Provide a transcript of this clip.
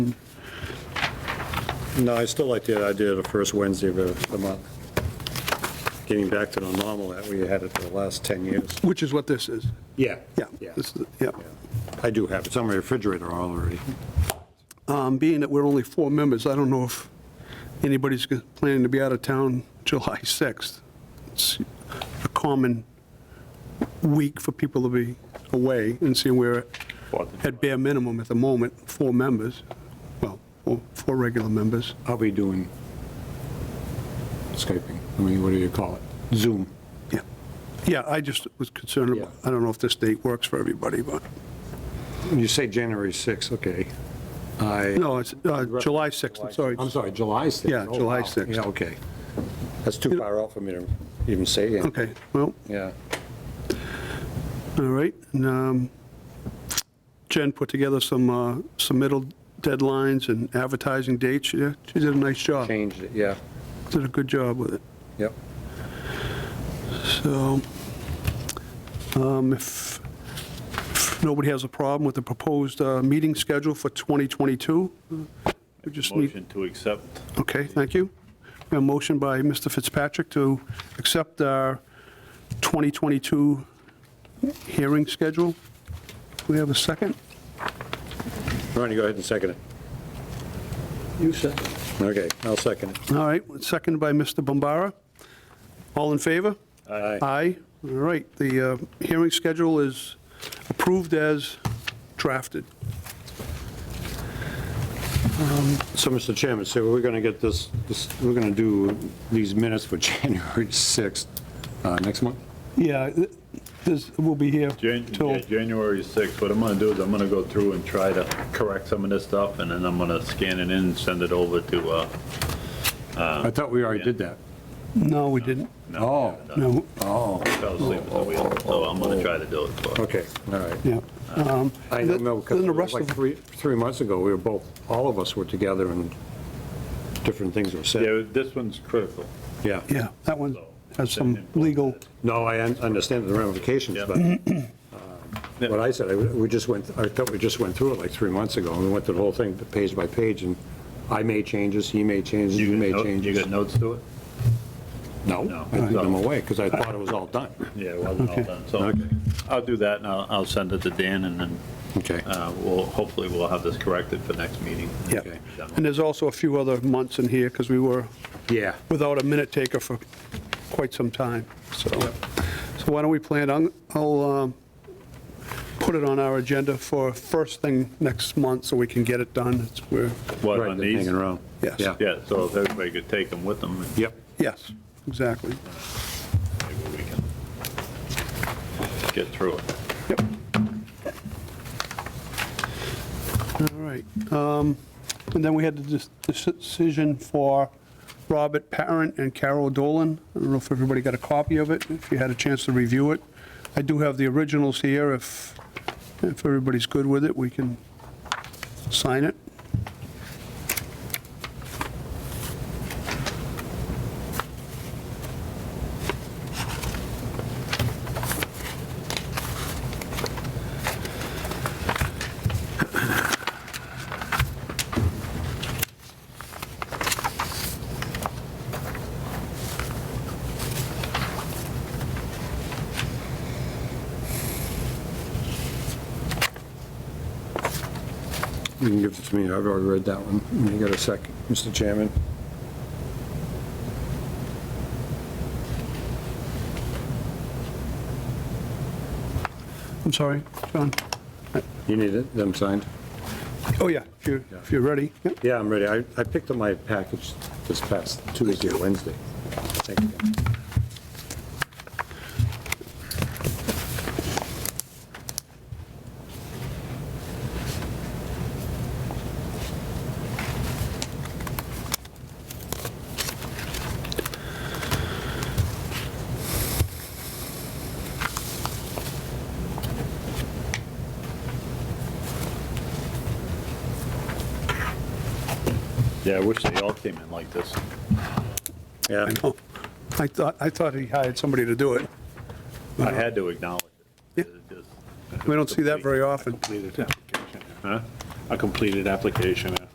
No, I still like the idea of the first Wednesday of the- the month. Getting back to the normal that we had it for the last 10 years. Which is what this is. Yeah. Yeah. Yeah. this is- Yeah. I do have it. It's on my refrigerator already. Um, Being that we're only four members, I don't know if anybody's g- planning to be out of town July 6th. It's a common week for people to be away, and seeing we're at bare minimum at the moment, four members, well, four- four regular members. I'll be doing Skyping. I mean, what do you call it? Zoom. Yeah, yeah. I just was concerned, about- Yeah. I don't know if this date works for everybody, but, When You say January 6th, okay. I. no, it's uh, July 6th, I'm sorry. I'm sorry, July 6th. Yeah, Oh, July wow. 6th. Yeah, okay. That's too far out for me to even say it. Okay, well, Yeah. all right. and, um, Jen put together some uh, submittal deadlines and advertising dates. Yeah, She did a nice job, Changed it, yeah. did a good job with it. Yep. So um, if if nobody has a problem with the proposed uh, meeting schedule for 2022, we just need Motion to accept. Okay, thank you. We have A motion by Mr. Fitzpatrick to accept our 2022 hearing schedule. Do we have a second? Ronnie, go ahead and second it. You second. Okay, I'll second it. All right, seconded by Mr. Bombara. All in favor? Aye. Aye. All right, the uh, hearing schedule is approved as drafted. So, Mr. Chairman, so we're going to get this, this- we're going to do these minutes for January 6th uh, next month? Yeah, th- this, we'll be here Jan- till, yeah, January 6th, what I'm gonna do is I'm gonna go through and try to correct some of this stuff, and then I'm gonna scan it in and send it over to, uh, I thought we already did that. no, we didn't. Oh. No, Oh, fell asleep at the wheel, so I'm gonna try to do it. for- okay, all right. yeah. Um, I don't know, because Then the it was rest like of, three, three months ago, we were both, all of us were together and different things were said. Yeah, this one's critical. Yeah. yeah, that one so- has some legal No, I un- understand the ramifications, Yeah. but uh, what I said, I- we just went, I thought we just went through it like three months ago, and we went through the whole thing page by page, and I made changes, he made changes, you got made note- changes. You got notes to it? No, No. I threw them away because I thought it was all done. Yeah, it wasn't all done, so Okay. I'll do that, and I'll, I'll send it to Dan, and then, Okay. uh, we'll, hopefully we'll have this corrected for next meeting. Yeah, Okay. and there's also a few other months in here, because we were Yeah. without a minute taker for quite some time, so. So why don't we plan, on- I'll um, put it on our agenda for first thing next month, so we can get it done. It's where, What, Right, on they're these? Hanging around. Yes. Yeah. Yeah, so if everybody could take them with them. and Yep. yes, exactly. Maybe we can get through it. Yep. All right. um, And then we had the dec- decision for Robert Parent and Carol Dolan. I don't know if everybody got a copy of it, if you had a chance to review it. I do have the originals here. If, if everybody's good with it, we can sign it. You can give it to me, I've already read that one. You got a second, Mr. Chairman? I'm sorry, John. You need it, them signed? Oh, yeah, if you're, if you're ready. Yep. Yeah, I'm ready. I, I picked up my package this past Tuesday, or Wednesday. Thank you. Yeah, I wish they all came in like this. Yeah, I know. I thought, I thought he hired somebody to do it. I had to acknowledge Yeah. it. It just- We don't see that very often. completed application. Huh? A completed application.